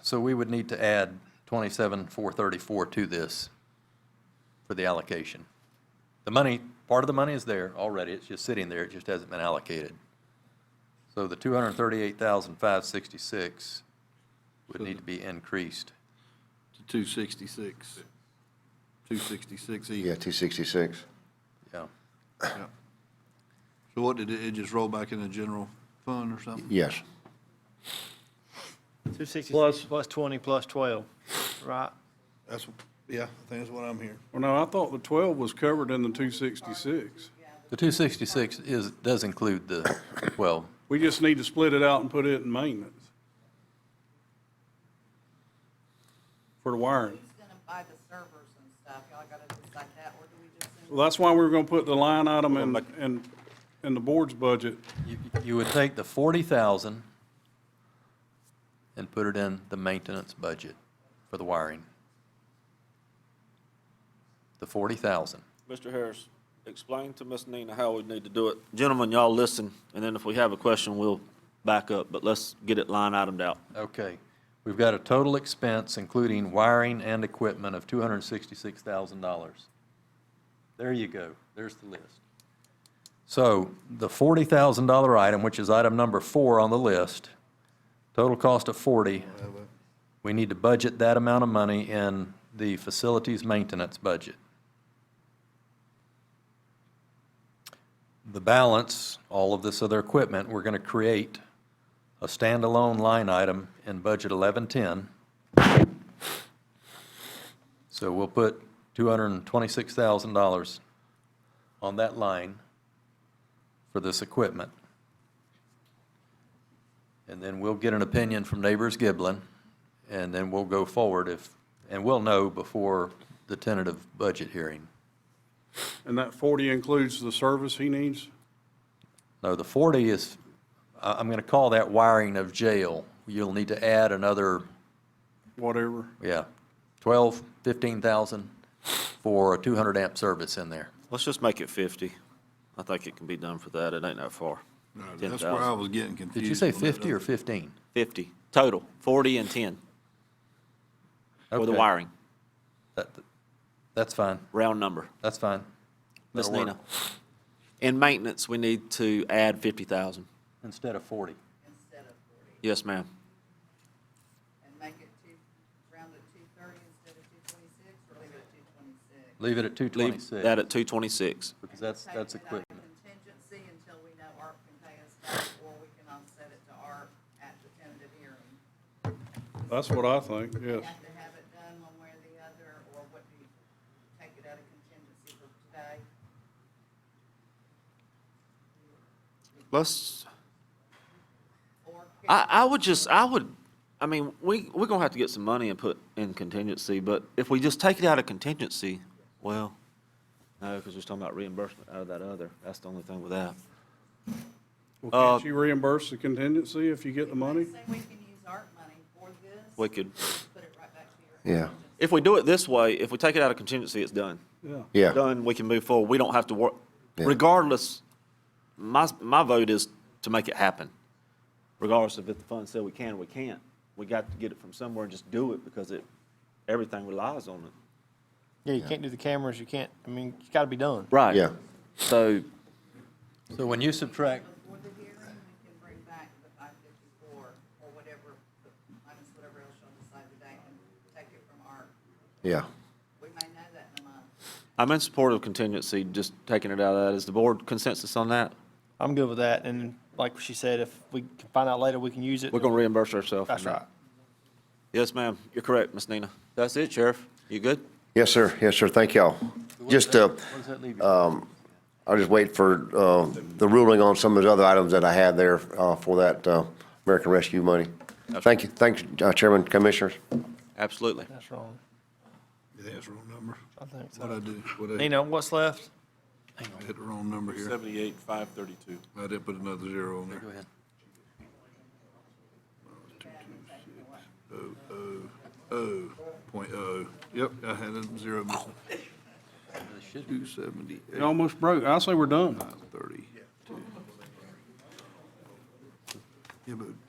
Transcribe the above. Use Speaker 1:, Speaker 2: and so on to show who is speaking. Speaker 1: So we would need to add 27,434 to this for the allocation. The money, part of the money is there already, it's just sitting there, it just hasn't been allocated. So the 238,566 would need to be increased.
Speaker 2: to two sixty-six. Two sixty-six
Speaker 3: Yeah,
Speaker 2: even.
Speaker 3: 266.
Speaker 1: Yeah.
Speaker 2: Yeah. So what did it, it just roll back in the general fund or something?
Speaker 3: Yes.
Speaker 4: 266 plus 20 plus 12, right?
Speaker 2: That's, yeah, I think that's what I'm hearing.
Speaker 5: Well, no, I thought the 12 was covered in the 266.
Speaker 1: The 266 is, does include the 12.
Speaker 5: We just need to split it out and put it in maintenance for the wiring.
Speaker 6: Who's gonna buy the servers and stuff? Y'all gotta decide that, or do we just send?
Speaker 5: Well, that's why we were going to put the line item in, in, in the board's budget.
Speaker 1: You- You would take the 40,000 and put it in the maintenance budget for the wiring. The 40,000.
Speaker 7: Mr. Harris, explain to Ms. Nina how we need to do it. Gentlemen, y'all listen, and then if we have a question, we'll back up, but let's get it line itemed out.
Speaker 1: Okay. We've got a total expense, including wiring and equipment, of $266,000. There you go. There's the list. So the $40,000 item, which is item number four on the list, total cost of 40, we need to budget that amount of money in the facilities maintenance budget. The balance, all of this other equipment, we're going to create a standalone line item in budget 1110. So we'll put $226,000 on that line for this equipment. And then we'll get an opinion from Neighbors Giblin, and then we'll go forward if, and we'll know before the tentative budget hearing.
Speaker 5: And that 40 includes the service he needs?
Speaker 1: No, the 40 is, I- I'm going to call that wiring of jail. You'll need to add another
Speaker 5: Whatever.
Speaker 1: Yeah, twelve, fifteen thousand for a two hundred amp service in there.
Speaker 7: Let's just make it fifty. I think it can be done for that, it ain't that far.
Speaker 2: No,
Speaker 7: Ten
Speaker 2: That's where I
Speaker 7: thousand.
Speaker 2: was getting confused.
Speaker 1: Did you say
Speaker 2: on that
Speaker 1: fifty or fifteen?
Speaker 7: Fifty, total, forty and ten for the
Speaker 1: Okay,
Speaker 7: wiring,
Speaker 1: that- That's fine,
Speaker 7: round number.
Speaker 1: that's fine.
Speaker 7: Ms.
Speaker 1: That'll work.
Speaker 7: Nina, in maintenance, we need to add fifty thousand.
Speaker 1: Instead of forty.
Speaker 6: Instead of forty,
Speaker 7: Yes, ma'am.
Speaker 6: and make it two, round it two thirty instead of two twenty-six, or leave it at two twenty-six?
Speaker 1: Leave it at two
Speaker 7: Leave
Speaker 1: twenty-six.
Speaker 7: that at two twenty-six.
Speaker 1: Because that's, that's equipment.
Speaker 6: Contingency until we know ARP can pay us back, or we can offset it to ARP at the tentative hearing.
Speaker 5: That's what I think, yes.
Speaker 6: Have to have it done one way or the other, or what do you, take it out of contingency for today?
Speaker 7: Let's,
Speaker 6: Or
Speaker 7: I, I would just, I would, I mean, we, we're gonna have to get some money and put in contingency, but if we just take it out of contingency, well, no, because we're talking about reimbursement out of that other, that's the only thing with that.
Speaker 5: Well,
Speaker 7: Uh,
Speaker 5: can't you reimburse the contingency if you get the money?
Speaker 6: Say we can use ARP money for this,
Speaker 7: We could,
Speaker 6: put it right back to your
Speaker 3: Yeah.
Speaker 7: if we do it this way, if we take it out of contingency, it's done.
Speaker 5: Yeah.
Speaker 3: Yeah.
Speaker 7: Done, we can move forward, we don't have to work,
Speaker 3: Yeah.
Speaker 7: regardless, my, my vote is to make it happen. Regardless of if the fund said we can or we can't, we got to get it from somewhere and just do it, because it, everything relies on it.
Speaker 4: Yeah, you can't do the cameras, you can't, I mean, it's got to be done.
Speaker 7: Right.
Speaker 3: Yeah.
Speaker 7: So
Speaker 1: So when you subtract,
Speaker 6: Before the hearing, we can bring back the five fifty-four or whatever, minus whatever else y'all decide today and take it from ARC.
Speaker 3: Yeah.
Speaker 6: We may know that in a month.
Speaker 7: I'm in support of contingency, just taking it out of that. Is the board consensus on that?
Speaker 4: I'm good with that, and like she said, if we can find out later, we can use it.
Speaker 7: We're going to reimburse ourselves.
Speaker 4: That's right.
Speaker 7: Yes, ma'am. You're correct, Miss Nina. That's it, Sheriff. You good?
Speaker 3: Yes, sir. Yes, sir. Thank y'all. Just, uh,
Speaker 1: what does that leave you?
Speaker 3: I'll just wait for, uh, the ruling on some of those other items that I had there, uh, for that, uh, American Rescue money. Thank you. Thanks, uh, Chairman, Commissioners.
Speaker 7: Absolutely.
Speaker 4: That's wrong.
Speaker 2: Yeah, that's the wrong number.
Speaker 4: I think so.
Speaker 2: What'd I do? What'd I-
Speaker 4: Nina, what's left?
Speaker 2: I Hit the wrong number here.
Speaker 8: Seventy-eight, five thirty-two.
Speaker 2: I did put another zero on there.
Speaker 1: Go ahead.
Speaker 2: Oh, point oh. Yep, I had a zero missing.
Speaker 1: It should be-
Speaker 2: Two seventy-eight,
Speaker 5: It almost broke. I say we're done.
Speaker 2: thirty-two. Yeah, but